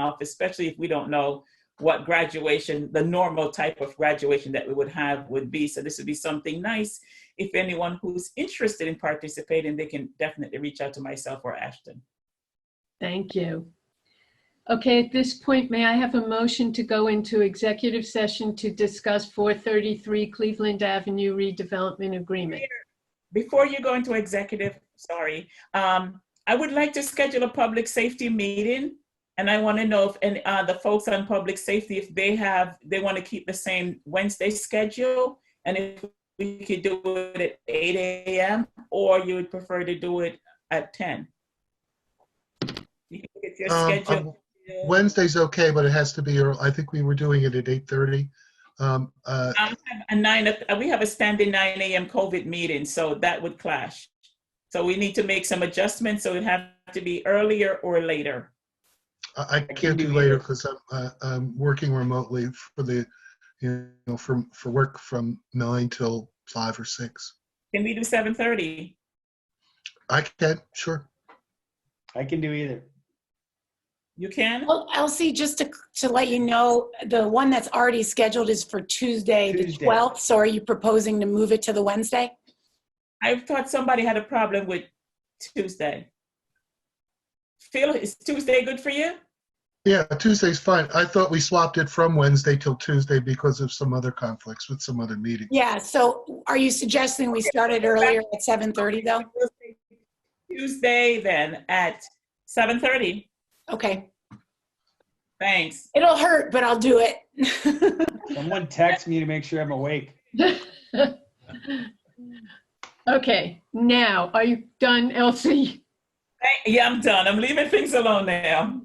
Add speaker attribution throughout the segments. Speaker 1: off, especially if we don't know what graduation, the normal type of graduation that we would have would be. So this would be something nice. If anyone who's interested in participating, they can definitely reach out to myself or Ashton.
Speaker 2: Thank you. Okay, at this point, may I have a motion to go into executive session to discuss 433 Cleveland Avenue redevelopment agreement?
Speaker 1: Before you go into executive, sorry, um, I would like to schedule a public safety meeting. And I want to know if, and, uh, the folks on public safety, if they have, they want to keep the same Wednesday schedule. And if we could do it at eight AM, or you would prefer to do it at ten? You can look at your
Speaker 3: Um,
Speaker 1: schedule.
Speaker 3: Wednesday's okay, but it has to be, early. I think we were doing it at 8:30. Um, uh,
Speaker 1: Um, A nine, o- we have a standing nine AM COVID meeting, so that would clash. So we need to make some adjustments, so it'd have to be earlier or later.
Speaker 3: I I can't do later because I'm, uh, I'm working remotely for the, you know, from, for work from nine till five or six.
Speaker 1: Can we do seven thirty?
Speaker 3: I can, sure.
Speaker 4: I can do either.
Speaker 1: You can?
Speaker 5: Well, Elsie, just to, to let you know, the one that's already scheduled is for Tuesday, the
Speaker 4: Tuesday.
Speaker 5: 12th. So are you proposing to move it to the Wednesday?
Speaker 1: I thought somebody had a problem with Tuesday. Phil, is Tuesday good for you?
Speaker 3: Yeah, Tuesday's fine. I thought we swapped it from Wednesday till Tuesday because of some other conflicts with some other meeting.
Speaker 5: Yeah, so are you suggesting we start it earlier at 7:30 though?
Speaker 1: Tuesday then at seven thirty.
Speaker 5: Okay,
Speaker 1: Thanks.
Speaker 5: it'll hurt, but I'll do it.
Speaker 4: Someone text me to make sure I'm awake.
Speaker 2: Okay, now, are you done, Elsie?
Speaker 1: Thank- Yeah, I'm done. I'm leaving things alone now.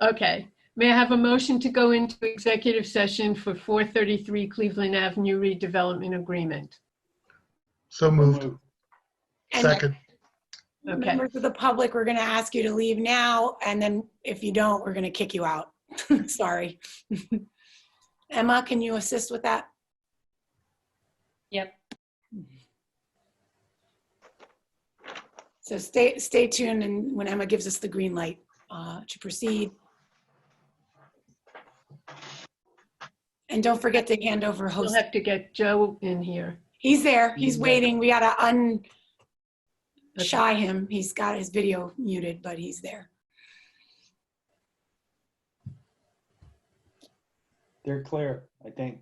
Speaker 2: Okay, may I have a motion to go into executive session for 433 Cleveland Avenue redevelopment agreement?
Speaker 3: So moved.
Speaker 5: And
Speaker 3: Second.
Speaker 2: Okay,
Speaker 5: Members of the public, we're going to ask you to leave now, and then if you don't, we're going to kick you out. Sorry. Emma, can you assist with that?
Speaker 6: Yep.
Speaker 5: So stay, stay tuned, and when Emma gives us the green light uh, to proceed. And don't forget to hand over
Speaker 2: we'll
Speaker 5: host.
Speaker 2: have to get Joe in here.
Speaker 5: He's there, he's
Speaker 4: Yeah.
Speaker 5: waiting. We gotta unshy
Speaker 2: Okay.
Speaker 5: him. He's got his video muted, but he's there.
Speaker 4: They're clear, I think.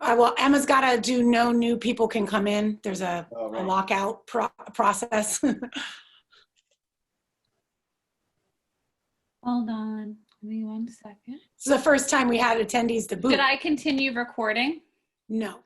Speaker 5: Uh, well, Emma's got to do no new people can come in. There's a,
Speaker 4: Oh,
Speaker 5: a
Speaker 4: right.
Speaker 5: lockout pro- process.
Speaker 6: Hold on, give me one second.
Speaker 5: it's the first time we had attendees to boot.
Speaker 6: Did I continue recording?
Speaker 5: No.